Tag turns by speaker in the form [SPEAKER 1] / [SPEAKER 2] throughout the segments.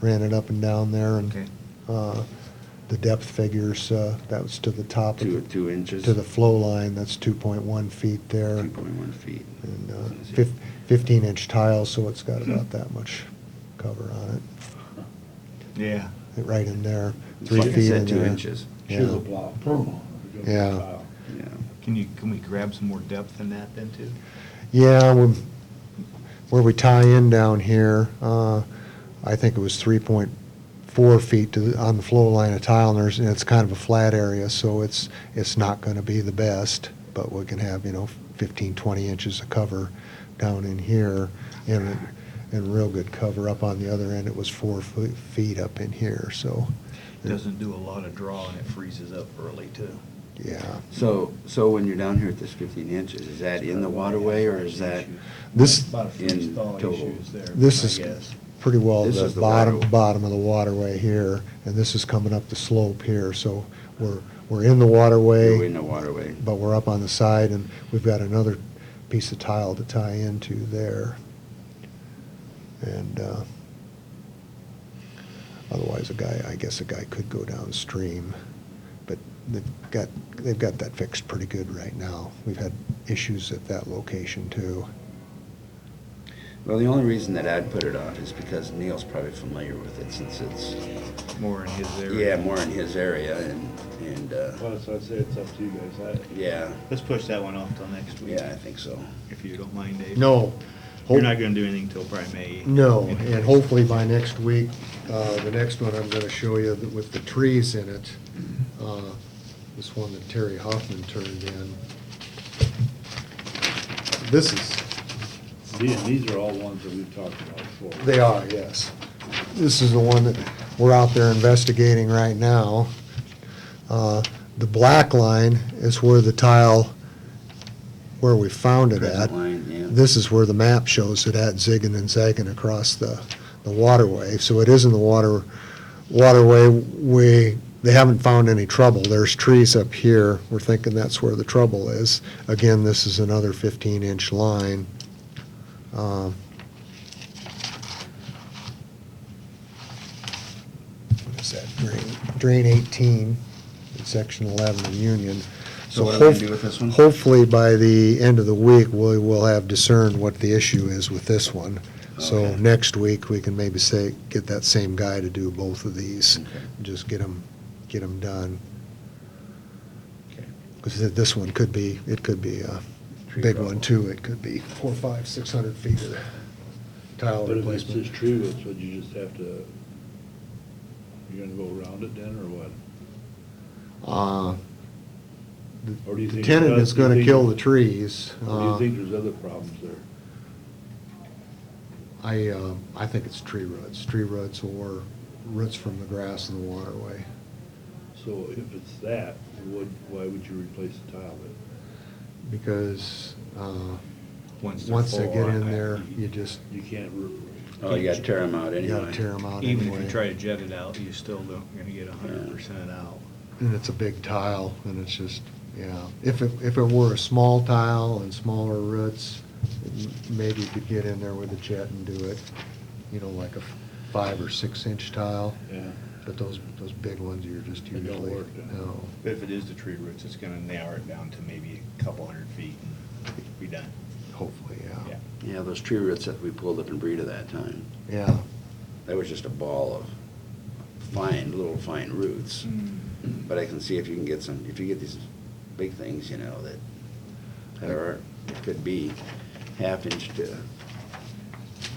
[SPEAKER 1] ran it up and down there and,
[SPEAKER 2] Okay.
[SPEAKER 1] uh, the depth figures, uh, that was to the top
[SPEAKER 3] Two,
[SPEAKER 1] of, the-
[SPEAKER 3] two inches?
[SPEAKER 1] to the flow line, that's two point one feet there.
[SPEAKER 3] Two point one feet.
[SPEAKER 1] And, uh, fif- fifteen inch tile, so it's got about that much cover on
[SPEAKER 2] Yeah.
[SPEAKER 1] it, right in there,
[SPEAKER 3] It's
[SPEAKER 1] three
[SPEAKER 3] like I
[SPEAKER 1] feet
[SPEAKER 3] said,
[SPEAKER 1] in
[SPEAKER 3] Two
[SPEAKER 1] there.
[SPEAKER 3] inches,
[SPEAKER 1] Yeah,
[SPEAKER 4] chisel block, promo.
[SPEAKER 1] Yeah.
[SPEAKER 3] yeah.
[SPEAKER 2] Can you, can we grab some more depth in that then too?
[SPEAKER 1] yeah, we- where we tie in down here, uh, I think it was three point four feet to, the- on the flow line of tile, and there's, and it's kind of a flat area, so it's, it's not gonna be the best, but we can have, you know, 15, 20 inches of cover down in here, and, and real good cover up on the other end, it was four foot, feet up in here, so,
[SPEAKER 2] Doesn't do a lot of draw and it freezes up early too.
[SPEAKER 1] yeah.
[SPEAKER 3] So, so when you're down here at this fifteen inches, is that in the waterway or is that?
[SPEAKER 1] This-
[SPEAKER 2] About a freeze
[SPEAKER 3] in
[SPEAKER 2] thaw
[SPEAKER 3] total.
[SPEAKER 2] issues there,
[SPEAKER 1] This
[SPEAKER 2] I
[SPEAKER 1] is-
[SPEAKER 2] guess.
[SPEAKER 1] pretty well
[SPEAKER 3] This
[SPEAKER 1] the
[SPEAKER 3] is the
[SPEAKER 1] bottom,
[SPEAKER 3] water-
[SPEAKER 1] bottom of the waterway here, and this is coming up the slope here, so we're, we're in the waterway.
[SPEAKER 3] You're in the waterway.
[SPEAKER 1] But we're up on the side, and we've got another piece of tile to tie into there. And, uh, otherwise a guy, I guess a guy could go downstream, but they've got, they've got that fixed pretty good right now. We've had issues at that location too.
[SPEAKER 3] Well, the only reason that I'd put it off is because Neil's probably familiar with it since it's,
[SPEAKER 2] More in his
[SPEAKER 3] yeah,
[SPEAKER 2] area.
[SPEAKER 3] more in his area and, and, uh,
[SPEAKER 4] Well, that's what I said, it's up to you guys.
[SPEAKER 3] yeah,
[SPEAKER 2] Let's push that one off till next week,
[SPEAKER 3] yeah, I think so.
[SPEAKER 2] if you don't mind, Dave.
[SPEAKER 1] No.
[SPEAKER 2] You're not gonna do anything till probably May.
[SPEAKER 1] No,
[SPEAKER 2] Anyway.
[SPEAKER 1] and hopefully by next week, uh, the next one I'm gonna show you that with the trees in it, uh, this one that Terry Hoffman turned in. This is,
[SPEAKER 4] I- These, these are all ones that we've talked about before.
[SPEAKER 1] they are, yes. This is the one that we're out there investigating right now. Uh, The black line is where the tile, where we found it at.
[SPEAKER 3] Crescent line, yeah.
[SPEAKER 1] This is where the map shows it at zigging and zagging across the, the waterway. So it is in the water, waterway. We, they haven't found any trouble. There's trees up here. We're thinking that's where the trouble is. Again, this is another 15-inch line. Um, What is that, drain, drain 18, in section 11 of Union.
[SPEAKER 3] So what do we
[SPEAKER 1] hopef-
[SPEAKER 3] do with this one?
[SPEAKER 1] Hopefully, by the end of the week, we will have discerned what the issue is with this one. So
[SPEAKER 3] Okay.
[SPEAKER 1] next week, we can maybe say, get that same guy to do both of these,
[SPEAKER 3] Okay.
[SPEAKER 1] just get them, get them done.
[SPEAKER 3] Okay.
[SPEAKER 1] Because this one could be, it could be a
[SPEAKER 3] Tree
[SPEAKER 1] big
[SPEAKER 3] problem.
[SPEAKER 1] one, too. It could be four, five, six hundred feet of tile
[SPEAKER 4] But if it's
[SPEAKER 1] replacement.
[SPEAKER 4] just tree roots, would you just have to, you're gonna go around it then, or what?
[SPEAKER 1] Uh,
[SPEAKER 4] Or do you
[SPEAKER 1] The
[SPEAKER 4] think
[SPEAKER 1] tenant
[SPEAKER 4] that-
[SPEAKER 1] is
[SPEAKER 4] do you
[SPEAKER 1] gonna
[SPEAKER 4] think-
[SPEAKER 1] kill the trees.
[SPEAKER 4] Or do
[SPEAKER 1] Uh,
[SPEAKER 4] you think there's other problems there?
[SPEAKER 1] I, uh, I think it's tree roots, tree roots or roots from the grass and the waterway.
[SPEAKER 4] So if it's that, would, why would you replace the tile then?
[SPEAKER 1] Because, uh,
[SPEAKER 2] Once they're
[SPEAKER 1] once they
[SPEAKER 2] full
[SPEAKER 1] get
[SPEAKER 2] on,
[SPEAKER 1] in
[SPEAKER 2] I-
[SPEAKER 1] there, you just,
[SPEAKER 4] You can't, re-
[SPEAKER 3] Oh, you gotta tear them out
[SPEAKER 1] you gotta
[SPEAKER 3] anyway.
[SPEAKER 1] tear them out
[SPEAKER 2] Even if you try
[SPEAKER 1] anyway.
[SPEAKER 2] to jet it out, you still don't, you're gonna get a hundred percent out.
[SPEAKER 1] And it's a big tile and it's just, yeah. If it, if it were a small tile and smaller roots, m- maybe you could get in there with a jet and do it, you know, like a f- five or six inch tile.
[SPEAKER 4] yeah,
[SPEAKER 1] But those, those big ones, you're just
[SPEAKER 4] They don't
[SPEAKER 1] usually,
[SPEAKER 4] work, yeah.
[SPEAKER 1] no.
[SPEAKER 2] But if it is the tree roots, it's gonna narrow it down to maybe a couple hundred feet and be done.
[SPEAKER 1] Hopefully, yeah.
[SPEAKER 2] Yeah.
[SPEAKER 3] Yeah, those tree roots that we pulled up in Breeda that time,
[SPEAKER 1] Yeah,
[SPEAKER 3] that was just a ball of fine, little fine roots. But I can see if you can get some, if you get these big things, you know, that, that are, could be half inch to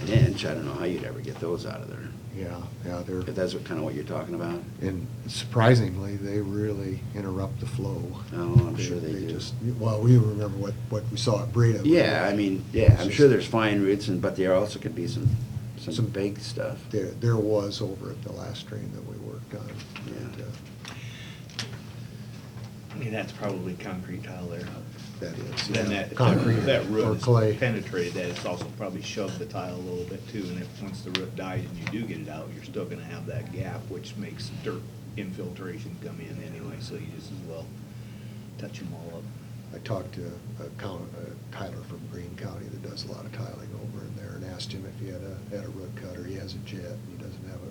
[SPEAKER 3] an inch, I don't know how you'd ever get those out of there.
[SPEAKER 1] yeah, yeah, they're,
[SPEAKER 3] If that's what, kinda what you're talking about,
[SPEAKER 1] and surprisingly, they really interrupt the flow.
[SPEAKER 3] oh, I'm sure they do.
[SPEAKER 1] just- Well, we remember what, what we saw at Breda.
[SPEAKER 3] Yeah, I mean, yeah, I'm sure there's fine roots and, but there also could be some, some
[SPEAKER 1] Some-
[SPEAKER 3] big stuff,
[SPEAKER 1] There, there was over at the last drain that we worked on.
[SPEAKER 3] Yeah.
[SPEAKER 1] and, uh,
[SPEAKER 2] I mean, that's probably concrete tile there.
[SPEAKER 1] That is.
[SPEAKER 2] Then
[SPEAKER 1] yeah,
[SPEAKER 2] that,
[SPEAKER 1] concrete
[SPEAKER 2] that- that
[SPEAKER 1] Or
[SPEAKER 2] root
[SPEAKER 1] clay.
[SPEAKER 2] has penetrated that, it's also probably shoved the tile a little bit too, and if, once the root dies and you do get it out, you're still gonna have that gap, which makes dirt infiltration come in anyway, so you just as well touch them all up.
[SPEAKER 1] I talked to a coun- a Tyler from Greene County that does a lot of tiling over in there and asked him if he had a, had a root cutter. He has a jet, and he doesn't have a